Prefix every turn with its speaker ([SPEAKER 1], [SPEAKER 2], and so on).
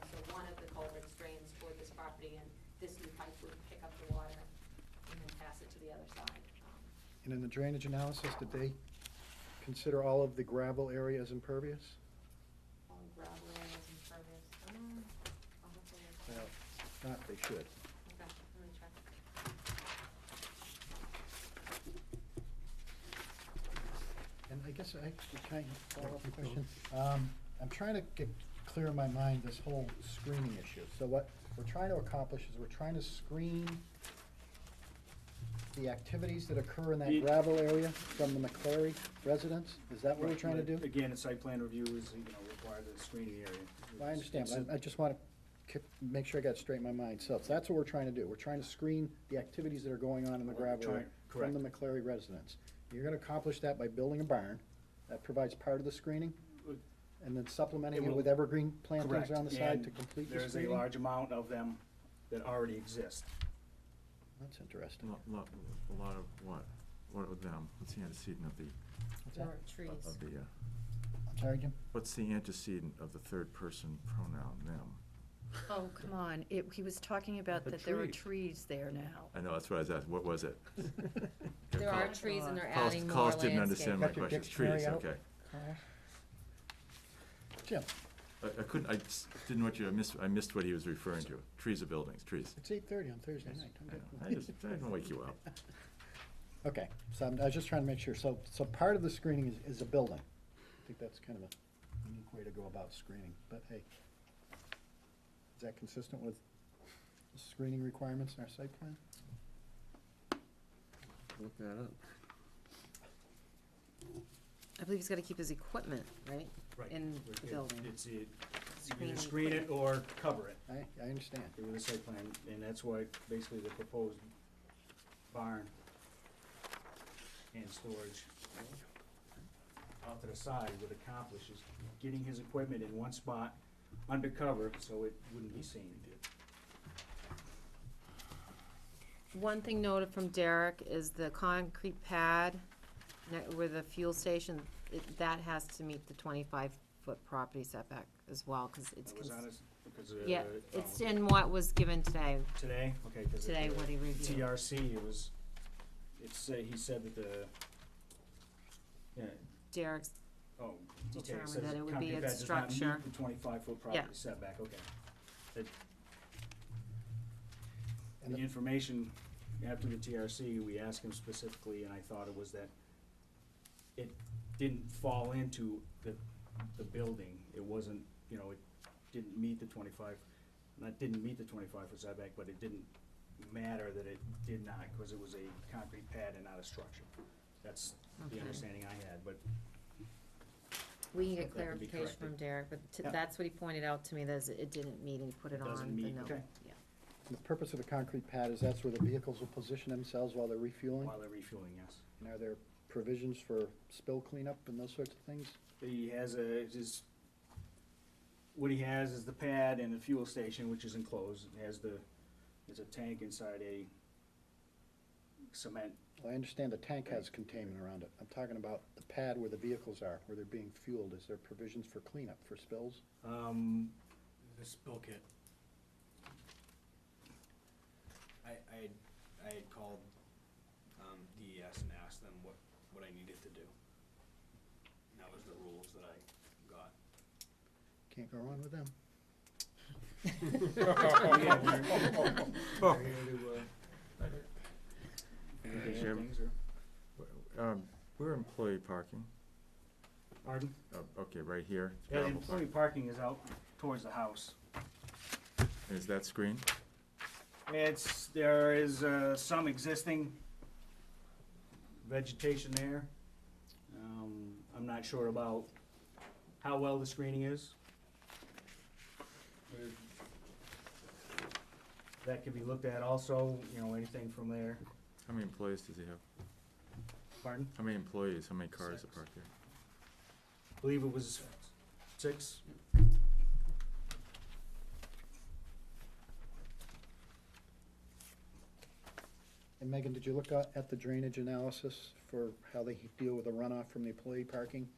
[SPEAKER 1] the culvert drains toward this property, and this new pipe would pick up the water and then pass it to the other side. Um,
[SPEAKER 2] And in the drainage analysis, did they consider all of the gravel area as impervious?
[SPEAKER 1] All gravel areas and pervious, um, I'll have to look.
[SPEAKER 2] Well, Not, they
[SPEAKER 1] Okay,
[SPEAKER 2] should.
[SPEAKER 1] let me check.
[SPEAKER 2] And I guess I, can I follow up a question? Um, I'm trying to get clear in my mind this whole screening issue. So what we're trying to accomplish is we're trying to screen the activities that occur in
[SPEAKER 3] Ye-
[SPEAKER 2] that gravel area from the McClary residents? Is that what we're
[SPEAKER 3] Right,
[SPEAKER 2] trying to
[SPEAKER 3] but
[SPEAKER 2] do?
[SPEAKER 3] Again, a site plan review is, you know, required of the screening area.
[SPEAKER 2] I understand,
[SPEAKER 3] It's-
[SPEAKER 2] but I I just want to make sure I got it straight in my mind. So if that's what we're trying to do. We're trying to screen the activities that are going on in the
[SPEAKER 3] Well, we're
[SPEAKER 2] gravel area
[SPEAKER 3] trying-
[SPEAKER 2] from the McClary residents. You're going to accomplish that by building a barn that provides part of the screening and then supplementing
[SPEAKER 3] It
[SPEAKER 2] it
[SPEAKER 3] will-
[SPEAKER 2] with evergreen plantings
[SPEAKER 3] Correct,
[SPEAKER 2] on the side to
[SPEAKER 3] and
[SPEAKER 2] complete the
[SPEAKER 3] There is a
[SPEAKER 2] screening?
[SPEAKER 3] large amount of them that already exist.
[SPEAKER 2] That's interesting.
[SPEAKER 4] Lot, lot, a lot of what, what of them, what's the antecedent of the,
[SPEAKER 2] What's that?
[SPEAKER 1] Or trees.
[SPEAKER 4] of the, uh,
[SPEAKER 2] I'm sorry, Jim?
[SPEAKER 4] what's the antecedent of the third person pronoun, them?
[SPEAKER 5] Oh, come on, it, he was talking about
[SPEAKER 6] The
[SPEAKER 5] that there were
[SPEAKER 6] trees.
[SPEAKER 5] trees there now.
[SPEAKER 4] I know, that's what I was asking, what was it?
[SPEAKER 1] There are
[SPEAKER 5] Colin-
[SPEAKER 1] trees and they're
[SPEAKER 4] Carlos-
[SPEAKER 1] adding more
[SPEAKER 4] Carlos didn't understand my
[SPEAKER 1] landscape.
[SPEAKER 2] Got your
[SPEAKER 4] question, trees,
[SPEAKER 2] dictionary out?
[SPEAKER 4] okay.
[SPEAKER 2] Carl? Jim,
[SPEAKER 4] I, I couldn't, I just didn't want you, I missed, I missed what he was referring to, trees or buildings, trees.
[SPEAKER 2] it's eight thirty on Thursday night. I'm
[SPEAKER 4] I know.
[SPEAKER 2] getting-
[SPEAKER 4] I just, I didn't wake you up.
[SPEAKER 2] Okay, so I'm, I was just trying to make sure, so, so part of the screening is, is a building. I think that's kind of a unique way to go about screening, but hey. Is that consistent with the screening requirements in our site plan?
[SPEAKER 6] Look that up.
[SPEAKER 5] I believe he's gotta keep his equipment, right?
[SPEAKER 3] Right.
[SPEAKER 5] In
[SPEAKER 3] It-
[SPEAKER 5] the building.
[SPEAKER 3] It's, it- you
[SPEAKER 5] Screening
[SPEAKER 3] either screen it or cover it
[SPEAKER 2] I, I understand.
[SPEAKER 3] with a site plan, and that's why basically the proposed barn and storage off to the side would accomplish is getting his equipment in one spot, undercover, so it wouldn't be seen.
[SPEAKER 5] One thing noted from Derek is the concrete pad ne- where the fuel station, it, that has to meet the twenty-five foot property setback as well, cause it's.
[SPEAKER 3] That was
[SPEAKER 5] cons-
[SPEAKER 3] on his, because of.
[SPEAKER 5] Yeah,
[SPEAKER 3] uh,
[SPEAKER 5] it's
[SPEAKER 3] oh,
[SPEAKER 5] in what was given today,
[SPEAKER 3] Today, okay, because.
[SPEAKER 5] today what he reviewed.
[SPEAKER 3] TRC, it was, it's, uh, he said that the, yeah,
[SPEAKER 5] Derek's
[SPEAKER 3] oh, okay, it
[SPEAKER 5] Determined
[SPEAKER 3] says
[SPEAKER 5] that it would
[SPEAKER 3] concrete
[SPEAKER 5] be a
[SPEAKER 3] pad does not meet
[SPEAKER 5] structure.
[SPEAKER 3] the twenty-five foot
[SPEAKER 5] Yeah.
[SPEAKER 3] property setback, okay. That-
[SPEAKER 2] And
[SPEAKER 3] The
[SPEAKER 2] the-
[SPEAKER 3] information after the TRC, we asked him specifically, and I thought it was that it didn't fall into the, the building, it wasn't, you know, it didn't meet the twenty-five, not didn't meet the twenty-five foot setback, but it didn't matter that it did not, because it was a concrete pad and not a structure. That's the
[SPEAKER 5] Okay.
[SPEAKER 3] understanding I had, but
[SPEAKER 5] We can
[SPEAKER 3] So
[SPEAKER 5] get
[SPEAKER 3] that can be
[SPEAKER 5] clarification from
[SPEAKER 3] corrected.
[SPEAKER 5] Derek, but t-
[SPEAKER 3] Yeah.
[SPEAKER 5] that's what he pointed out to me, that is it didn't meet, and he put it
[SPEAKER 3] It
[SPEAKER 5] on the note.
[SPEAKER 3] doesn't meet, okay.
[SPEAKER 5] Yeah.
[SPEAKER 2] The purpose of the concrete pad is that's where the vehicles will position themselves while they're refueling?
[SPEAKER 3] while they're refueling, yes.
[SPEAKER 2] And are there provisions for spill cleanup and those sorts of things?
[SPEAKER 3] He has a, his, what he has is the pad and the fuel station, which is enclosed, it has the, there's a tank inside a cement,
[SPEAKER 2] Well, I understand the tank has containment around it. I'm talking about the pad where the vehicles are, where they're being fueled. Is there provisions for cleanup, for spills?
[SPEAKER 3] um,
[SPEAKER 7] The spill kit. I, I, had- I had called, um, DES and asked them what, what I needed to do. And that was the rules that I got.
[SPEAKER 2] Can't go wrong with them.
[SPEAKER 3] Yeah, we're- we're here to, uh,
[SPEAKER 4] Mr. Chairman.
[SPEAKER 3] things, or-
[SPEAKER 4] Um, we're employee parking,
[SPEAKER 3] Pardon?
[SPEAKER 4] oh, okay, right here. it's
[SPEAKER 3] Yeah, the
[SPEAKER 4] gravel
[SPEAKER 3] employee parking is out towards the house.
[SPEAKER 4] park. Is that screened?
[SPEAKER 3] It's, there is, uh, some existing vegetation there. Um, I'm not sure about how well the screening is. That could be looked at also, you know, anything from there.
[SPEAKER 4] How many employees does he have?
[SPEAKER 3] Pardon?
[SPEAKER 4] How many employees, how many cars are
[SPEAKER 3] Six.
[SPEAKER 4] parked there?
[SPEAKER 3] Believe it was six.
[SPEAKER 2] And Megan, did you look at at the drainage analysis for how they deal with the runoff from the employee parking?